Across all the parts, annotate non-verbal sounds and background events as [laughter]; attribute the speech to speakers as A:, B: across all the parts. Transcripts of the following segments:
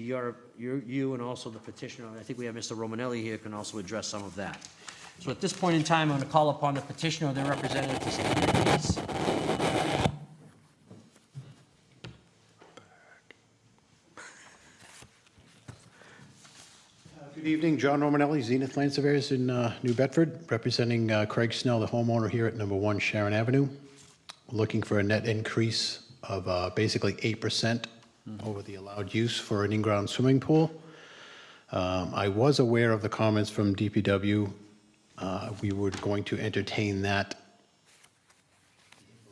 A: Your, your- you and also the petitioner, and I think we have Mr. Romanelli here, can also address some of that. So at this point in time, I'm going to call upon the petitioner or their representative to stand, please.
B: Uh, Good evening, John Romanelli, Zenith Land Surveyors in uh, New Bedford, representing uh, Craig Snell, the homeowner here at number one Sharon Avenue. Looking for a net increase of uh, basically 8% over the allowed use for an in-ground swimming pool. Um, I was aware of the comments from DPW. Uh, We were going to entertain that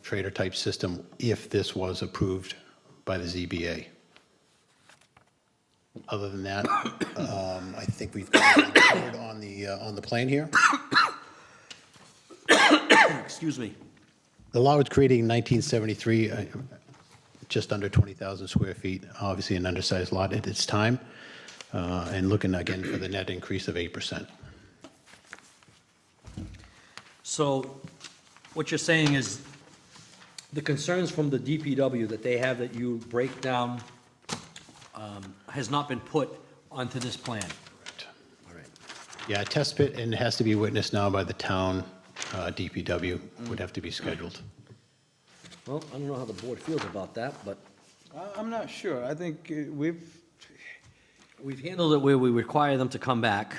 B: trader-type system if this was approved by the ZBA. Other than that, um, I think we've covered on the, uh, on the plan here.
A: [clears throat] Excuse me.
B: The law was creating 1973, uh, just under 20,000 square feet, obviously an undersized lot at its time, uh, and looking again for the net increase of 8%.
A: So what you're saying is the concerns from the DPW that they have that you break down um, has not been put onto this plan. All right.
B: Yeah, a test pit, and it has to be witnessed now by the town uh, DPW, would have to be scheduled.
A: Well, I don't know how the board feels about that, but
C: I- I'm not sure. I think uh, we've,
A: we've handled it where we require them to come back.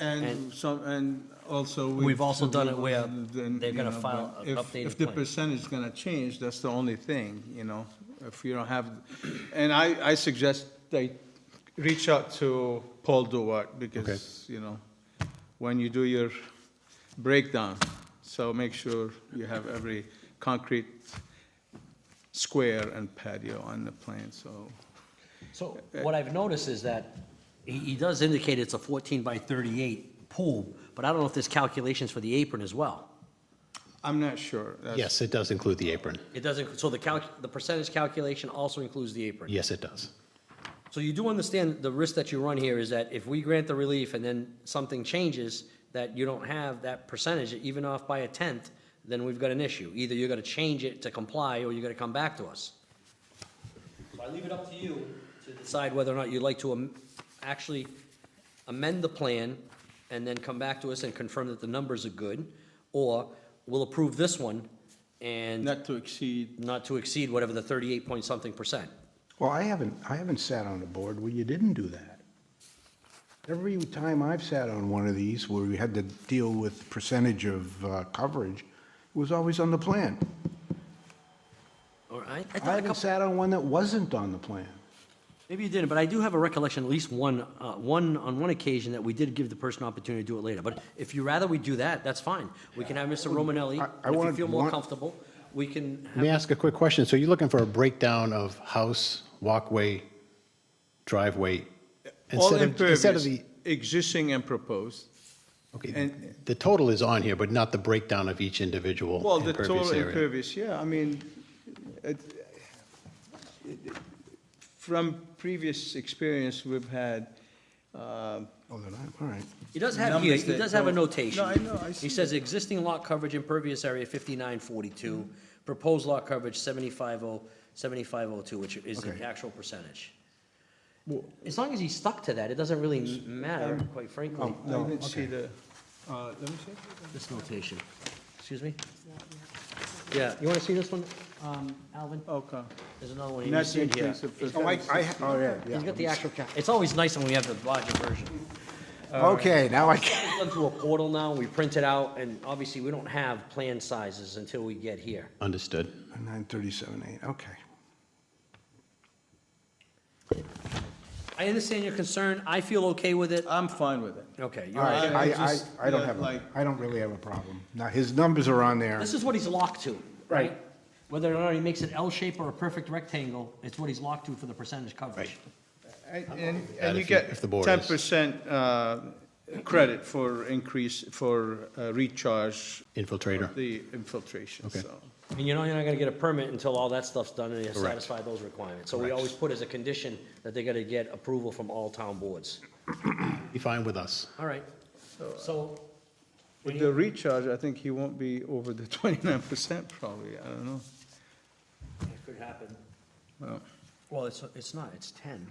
C: and some, and also.
A: We've also done it where
C: then,
A: they're
C: you
A: gonna
C: know,
A: file
C: but
A: an
C: if-
A: updated
C: If the
A: plan.
C: percentage is gonna change, that's the only thing, you know, if you don't have, and I, I suggest they reach out to Paul Duart because, you know, when you do your breakdown, so make sure you have every concrete square and patio on the plan, so.
A: So what I've noticed is that he, he does indicate it's a fourteen by thirty-eight pool, but I don't know if there's calculations for the apron as well.
C: I'm not sure. That's-
B: Yes, it does include the apron.
A: It doesn't, so the calc, the percentage calculation also includes the apron?
B: Yes, it does.
A: So you do understand the risk that you run here is that if we grant the relief and then something changes, that you don't have that percentage, even off by a tenth, then we've got an issue. Either you're gonna change it to comply, or you're gonna come back to us. So I leave it up to you to decide whether or not you'd like to am- actually amend the plan and then come back to us and confirm that the numbers are good, or we'll approve this one and
C: Not to exceed
A: not to exceed whatever the thirty-eight point something percent.
D: Well, I haven't, I haven't sat on a board where you didn't do that. Every time I've sat on one of these where we had to deal with percentage of uh, coverage, it was always on the plan.
A: All right? I thought a
D: I haven't
A: couple-
D: sat on one that wasn't on the plan.
A: Maybe you didn't, but I do have a recollection, at least one, uh, one, on one occasion, that we did give the person opportunity to do it later. But if you rather we do that, that's fine. We can have Mr. Romanelli,
D: I- I
A: if you
D: wanted-
A: feel more
D: want-
A: comfortable, we can,
B: Let me ask a quick question. So you're looking for a breakdown of house, walkway, driveway?
C: All
B: instead of- Instead of
C: impervious,
B: the
C: existing and proposed.
B: Okay,
C: And-
B: the total is on here, but not the breakdown of each individual
C: Well, the total
B: impervious area.
C: impervious, yeah, I mean, it, it- from previous experience we've had, um,
D: Oh, then I, all right.
A: he does have here,
C: Numbers
A: he
C: that
A: does have a
C: don't-
A: notation.
C: No, I know, I
A: He
C: see
A: says existing lot coverage impervious area fifty-nine forty-two, proposed lot coverage seventy-five oh, seventy-five oh two, which is the
D: Okay.
A: actual percentage. As long as he stuck to that, it doesn't really matter, quite frankly,
C: I didn't see the, uh, let me see.
A: this notation. Excuse me? Yeah, you wanna see this one, um, Alvin?
C: Okay.
A: There's another one, you
C: Not
A: just see it here.
C: increase of
D: Oh, I,
C: percentage.
D: I, oh, yeah,
A: He's got the
D: yeah.
A: actual, ca- it's always nice when we have the larger version.
D: Okay, now I can.
A: It's done through a portal now, we print it out, and obviously, we don't have plan sizes until we get here.
B: Understood.
D: Nine thirty-seven, eight, okay.
A: I understand your concern, I feel okay with it.
C: I'm fine with it.
A: Okay,
D: All
A: you're
D: right,
A: right.
C: I- I
D: I, I,
C: just-
D: I don't
C: yeah,
D: have, a-
C: like-
D: I don't really have a problem. Now, his numbers are on there.
A: This is what he's locked to, right? Whether or not he makes it L shape or a perfect rectangle, it's what he's locked to for the percentage coverage.
C: And- And,
B: that
C: and you
B: if you-
C: get
B: if the board
C: ten
B: is-
C: percent, uh, credit for increase, for uh, recharge of
B: Infiltrator.
C: the infiltration,
B: Okay.
C: so.
A: And you know you're not gonna get a permit until all that stuff's done and you
B: Correct.
A: satisfy those requirements. So we
B: Correct.
A: always put as a condition that they gotta get approval from all town boards.
B: Be fine with us.
A: All right, so,
C: With uh, the recharge, I think he won't be over the [laughs] twenty-nine percent probably, I don't know.
A: it could happen.
C: Well, Oh,
A: Well, it's, it's not, it's ten.